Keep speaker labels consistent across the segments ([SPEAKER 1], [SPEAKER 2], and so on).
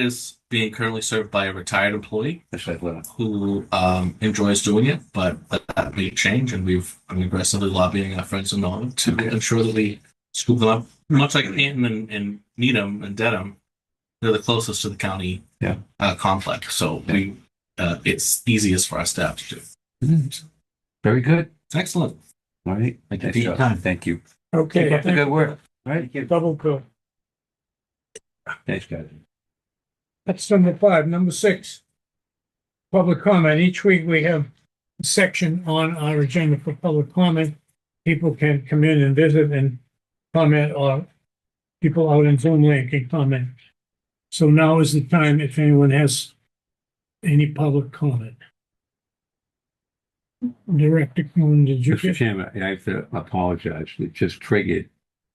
[SPEAKER 1] is being currently served by a retired employee
[SPEAKER 2] Actually, I will.
[SPEAKER 1] who um, enjoys doing it, but that, that may change. And we've been aggressively lobbying our friends in Norton to
[SPEAKER 2] Okay.
[SPEAKER 1] ensure that we scoop them up, much like Canton and, and Needham and Dedham. They're the closest to the county
[SPEAKER 2] Yeah.
[SPEAKER 1] uh, complex, so we uh, it's easiest for our staff to do.
[SPEAKER 2] Very good.
[SPEAKER 1] Excellent.
[SPEAKER 2] All right.
[SPEAKER 1] Thank you
[SPEAKER 2] Nice
[SPEAKER 1] for your
[SPEAKER 2] job.
[SPEAKER 1] time.
[SPEAKER 2] Thank you.
[SPEAKER 3] Okay.
[SPEAKER 2] Keep up the
[SPEAKER 3] thank
[SPEAKER 2] good
[SPEAKER 3] you.
[SPEAKER 2] work. All right.
[SPEAKER 3] Double good.
[SPEAKER 2] Thanks, guys.
[SPEAKER 3] That's number five. Number six. Public comment. Each week we have a section on our agenda for public comment. People can come in and visit and comment or people out in Zoom land can comment. So now is the time if anyone has any public comment. Director Coon, did you
[SPEAKER 2] Mr.
[SPEAKER 3] get?
[SPEAKER 2] Chairman, I have to apologize. It just triggered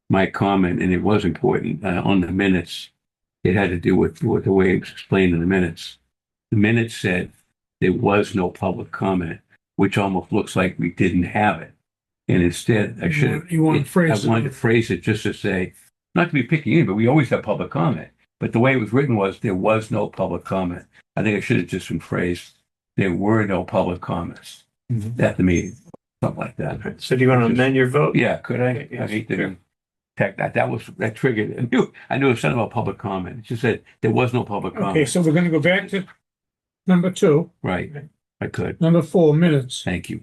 [SPEAKER 2] my comment and it was important uh, on the minutes. It had to do with, with the way it was explained in the minutes. The minutes said there was no public comment, which almost looks like we didn't have it. And instead, I should have.
[SPEAKER 3] You want to phrase
[SPEAKER 2] I wanted to
[SPEAKER 3] it?
[SPEAKER 2] phrase it just to say, not to be picky, but we always have public comment. But the way it was written was there was no public comment. I think it should have just been phrased, there were no public comments
[SPEAKER 3] Mm-hmm.
[SPEAKER 1] Mhm.
[SPEAKER 2] at the meeting, something like that.
[SPEAKER 4] So do you want to amend your vote?
[SPEAKER 2] Yeah, could I?
[SPEAKER 4] Okay,
[SPEAKER 2] I
[SPEAKER 4] yes,
[SPEAKER 2] hate
[SPEAKER 4] sure.
[SPEAKER 2] to, tech, that, that was, that triggered, it. I knew, I knew it was something about public comment. It just said, there was no public
[SPEAKER 3] Okay,
[SPEAKER 2] comment.
[SPEAKER 3] so we're going to go back to number two,
[SPEAKER 2] Right, I could,
[SPEAKER 3] number four, minutes.
[SPEAKER 2] thank you.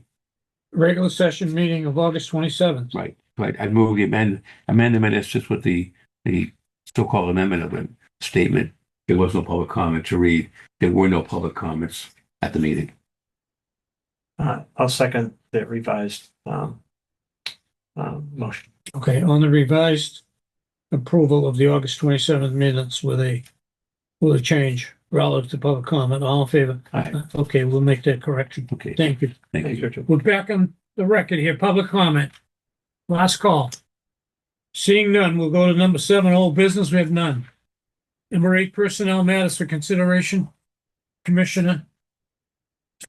[SPEAKER 3] regular session meeting of August twenty-seventh.
[SPEAKER 2] Right, right. I move the amend, amend the minutes just with the, the so-called amendment of the statement. There was no public comment to read. There were no public comments at the meeting.
[SPEAKER 4] Uh, I'll second the revised, um, um, motion.
[SPEAKER 3] Okay, on the revised approval of the August twenty-seventh minutes with a, with a change relative to public comment, all in favor?
[SPEAKER 2] Aye.
[SPEAKER 3] Okay, we'll make that correction.
[SPEAKER 2] Okay,
[SPEAKER 3] Thank you.
[SPEAKER 2] thank
[SPEAKER 4] Thanks,
[SPEAKER 2] you.
[SPEAKER 4] Richard.
[SPEAKER 3] We're back on the record here, public comment. Last call. Seeing none, we'll go to number seven, old business, we have none. Number eight, personnel matters for consideration. Commissioner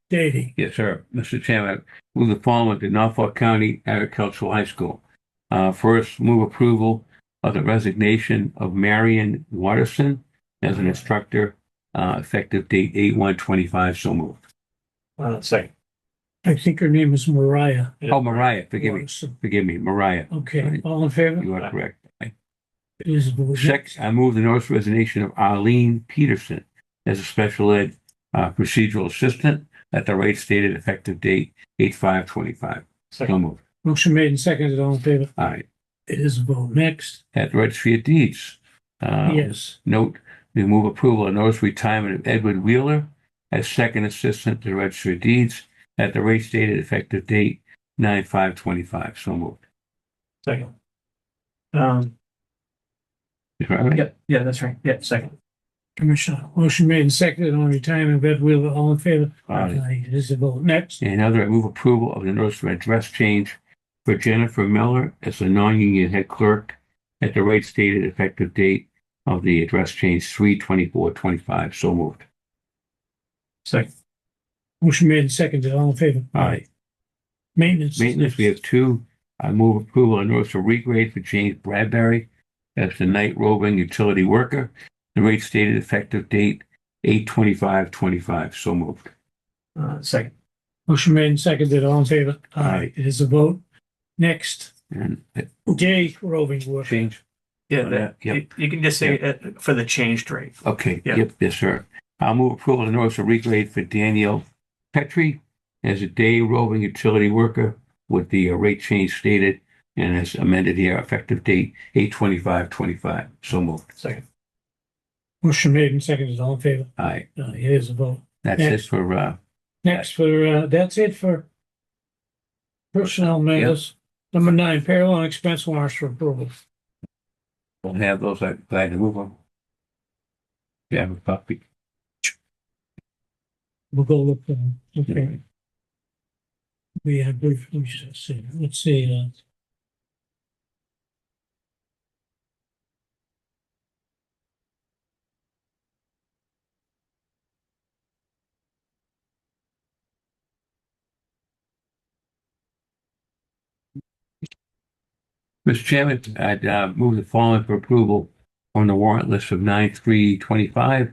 [SPEAKER 3] Davy.
[SPEAKER 2] Yes, sir. Mr. Chairman, I move the following to Norfolk County Agricultural High School. Uh, first, move approval of the resignation of Marion Watterson as an instructor, uh, effective date eight one twenty-five, so moved.
[SPEAKER 4] Uh, second.
[SPEAKER 3] I think her name is Mariah.
[SPEAKER 2] Oh, Mariah, forgive me,
[SPEAKER 3] Morrison.
[SPEAKER 2] forgive me, Mariah,
[SPEAKER 3] Okay,
[SPEAKER 2] Right.
[SPEAKER 3] all in favor?
[SPEAKER 2] you are correct.
[SPEAKER 3] Please vote.
[SPEAKER 2] Six, I move the notice of resignation of Arlene Peterson as a special ed uh, procedural assistant at the rate stated effective date eight five twenty-five. So
[SPEAKER 4] Second.
[SPEAKER 2] moved.
[SPEAKER 3] Motion made and seconded, all in favor?
[SPEAKER 2] All right.
[SPEAKER 3] It is a vote. Next,
[SPEAKER 2] At the registry of deeds. uh,
[SPEAKER 3] yes.
[SPEAKER 2] Note, we move approval of notice of retirement of Edward Wheeler as second assistant to the registry of deeds at the rate stated effective date nine five twenty-five. So moved.
[SPEAKER 4] Second. Um,
[SPEAKER 2] Is that right?
[SPEAKER 4] yeah, yeah, that's right. Yeah, second.
[SPEAKER 3] Commissioner, motion made and seconded on retirement of Ed Wheeler, all in favor?
[SPEAKER 2] Aye.
[SPEAKER 3] It is a vote. Next,
[SPEAKER 2] And other, I move approval of the notice of address change for Jennifer Miller as the non-union head clerk at the rate stated effective date of the address change three twenty-four twenty-five. So moved.
[SPEAKER 4] Second.
[SPEAKER 3] motion made and seconded, all in favor?
[SPEAKER 2] All right.
[SPEAKER 3] Maintenance.
[SPEAKER 2] Maintenance, we have two. I move approval on notice of regrade for James Bradbury as the night roving utility worker. The rate stated effective date eight twenty-five twenty-five. So moved.
[SPEAKER 4] Uh, second.
[SPEAKER 3] Motion made and seconded, all in favor?
[SPEAKER 2] Aye.
[SPEAKER 3] It is a vote. Next,
[SPEAKER 2] And that
[SPEAKER 3] day roving work.
[SPEAKER 2] change?
[SPEAKER 4] Yeah,
[SPEAKER 2] Uh,
[SPEAKER 4] that,
[SPEAKER 2] yeah.
[SPEAKER 4] you, you can just say it for the changed rate.
[SPEAKER 2] Okay,
[SPEAKER 4] Yeah.
[SPEAKER 2] yep, yes, sir. I'll move approval on notice of regrade for Daniel Petrie as a day roving utility worker with the uh, rate change stated and as amended here, effective date eight twenty-five twenty-five. So moved.
[SPEAKER 4] Second.
[SPEAKER 3] Motion made and seconded, all in favor?
[SPEAKER 2] All right,
[SPEAKER 3] Uh, It is a vote.
[SPEAKER 2] that's it for, uh,
[SPEAKER 3] Next for, uh, that's it for personnel matters. Number nine, payroll and expense warrants for approval.
[SPEAKER 2] Don't have those, I'm glad to move them. If you have a copy.
[SPEAKER 3] We'll go look, for them. okay, we have, brief- we should see, let's see, uh,
[SPEAKER 2] Mr. Chairman, I'd uh, move the following for approval on the warrant list of nine three twenty-five.